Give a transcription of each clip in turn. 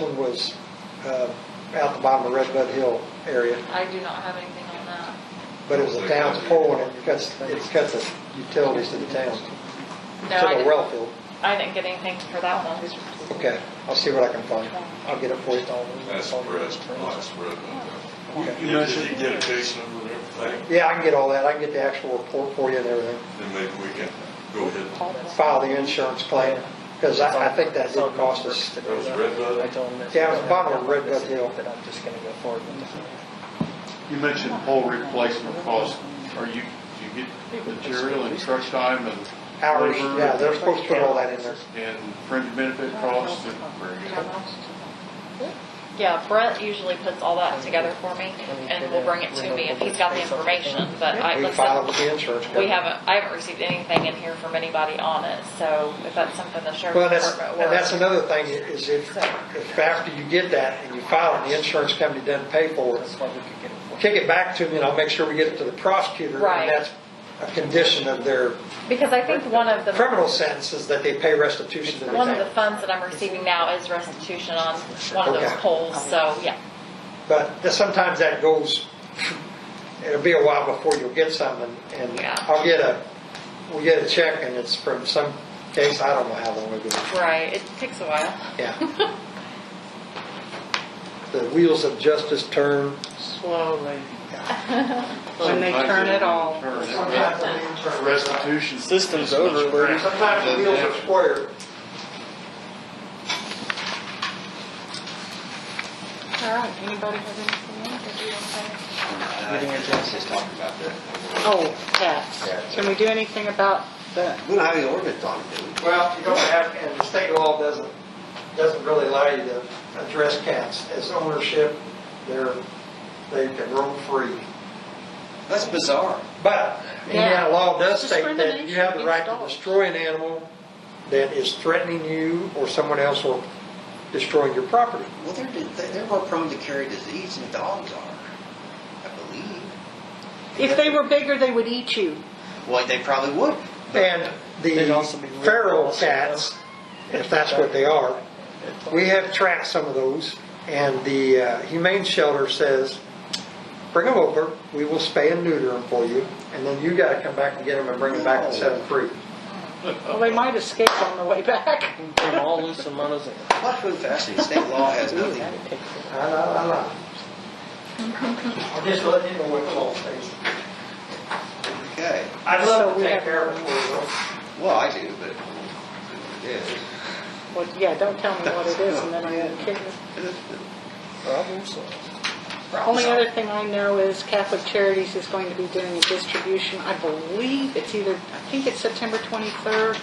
one was uh, out the bottom of Redbud Hill area, I do not have anything on that. but it was the town's pole and it cuts, it cuts the utilities to the town, to No, I the didn't, well field. I didn't get anything for that one. Okay, I'll see what I can find. I'll get it for you. That's breast, lots of red. Okay. You mentioned- get a case number and everything, Yeah, I can get all that. I can get the actual report for you and everything. then maybe we can go ahead. and- File the insurance claim, because I, I think that did cost us. That was Red Bud? I told him that- Yeah, it was bottom of Red Bud Hill. That I'm just gonna go forward with it. You mentioned pole replacement cost. Are you, do you get material and truck time and Hours, labor yeah, they're supposed to put all that in there. And fringe benefit costs and Yeah, Brett usually puts all that together for me and will bring it to me if he's got the information, but I, We like filed I with said, the insurance. we company. haven't, I haven't received anything in here from anybody on it, so if that's something the sheriff's Well, that's, department and that's will. another thing, is if, if after you get that and you file it, the insurance company doesn't pay for it, That's why we could get it. kick it back to me and I'll make sure we get it to the prosecutor. Right. And that's a condition of their Because I think one of the. criminal sentences, that they pay restitution to the One of the town. funds that I'm receiving now is restitution on one of those Okay. poles, so, yeah. But that- sometimes that goes, it'll be a while before you'll get something and Yeah. I'll get a, we'll get a check and it's from some case, I don't know how long ago. Right, it takes a while. Yeah. The wheels of justice turn. Slowly. When they Sometimes turn they it all. turn it. Sometimes restitution. System's over, Bernie. Sometimes the wheels are square. All right, anybody have anything else that you want to say? Getting your justice talking about that. Oh, tax. Can we do anything about the, We don't have any ordinance on it, do we? Well, you don't have, and the state law doesn't, doesn't really allow you to address cats as ownership. They're, they can roam free. That's bizarre. But Indiana Yeah. law does state that you Discrimination have the right against to dogs. destroy an animal that is threatening you or someone else or destroying your property. Well, they're, they're more prone to carry disease than dogs are, I believe. if they were bigger, they would eat you. Well, they probably would. And They'd also be the rude feral also, cats, if that's what they are, we have tracked some of those, and the uh, humane shelter says, bring them over, we will spay and neuter them for you, and then you gotta come back and get them and bring them back and set them free. Well, they might escape on the way back. Mm. From all Lucimanos and. That's really fascinating. State law has nothing. I know, I know. I'm just letting you know what the law says. Okay. I'd love So to we take have- care of it for you. Well, I do, but it is. Well, yeah, don't tell me what it is and then I'm kidding. Only other thing I know is Catholic Charities is going to be doing a distribution. I believe it's either, I think it's September 23rd,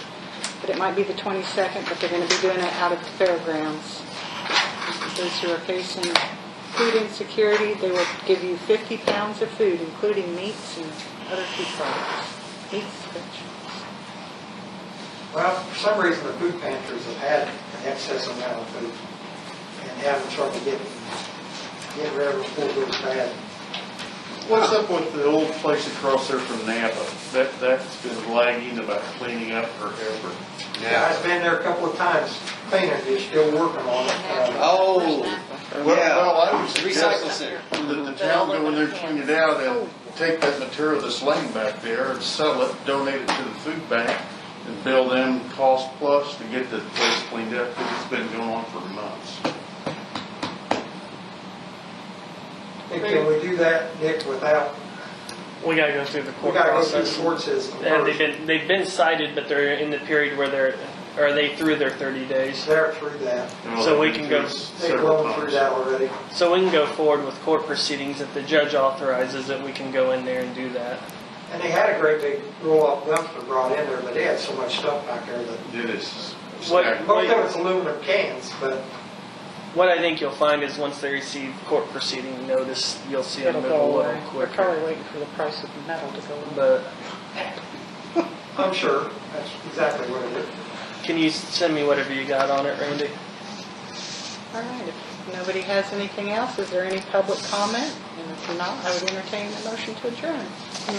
but it might be the 22nd, but they're going to be doing it out at the fairgrounds. Those who are facing food insecurity, they will give you 50 pounds of food, including meats and other food products. Meats, vegetables. Well, for some reason, the food pantries have had an excess amount of food and having trouble getting, getting rid of it before it goes bad. What's up with the old place across there from Napa? That, that's been lagging about cleaning up forever. Yeah, I've been there a couple of times cleaning, they're still working on it. Uh, Oh, Well, yeah. I would Recycle center. that the town go in there, clean it out, and take that material that's laying back there and sell it, donate it to the food bank, and bill them cost plus to get the place cleaned up, because it's been going on for months. and Uh, Can we do that, Nick, without, We gotta go through the we court gotta go through the process. court system And they've first. been, they've been cited, but they're in the period where they're, or they through their thirty days. They're through that. You know, So we they've can been go- through it They've several gone through times. that already. So we can go forward with court proceedings. If the judge authorizes it, we can go in there and do that. And they had a great big roll-up dumpster brought in there, but they had so much stuff back there that, It is. What- stagnant. most of it's aluminum cans, but What I think you'll find is once they receive court proceeding notice, you'll see them It'll move go a away. little We're quicker. probably waiting for the price of metal to go up. But I'm sure that's exactly what it is. can you send me whatever you got on it, Randy? All right, if nobody has anything else, is there any public comment? And if not, I would entertain a motion to adjourn.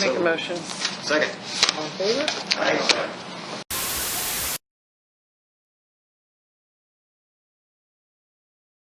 Make a motion. Second. All in favor? Thanks.